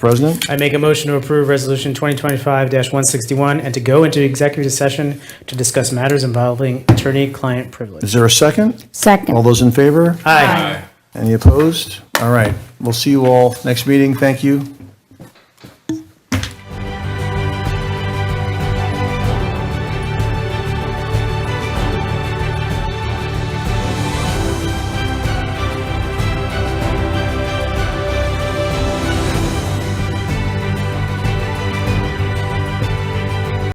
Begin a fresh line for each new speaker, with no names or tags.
President,
I make a motion to approve Resolution 2025-161 and to go into executive session to discuss matters involving attorney-client
is
privilege.
there a second? All
Second.
those in favor?
Aye.
Any opposed? All right, we'll see you all next meeting. Thank you.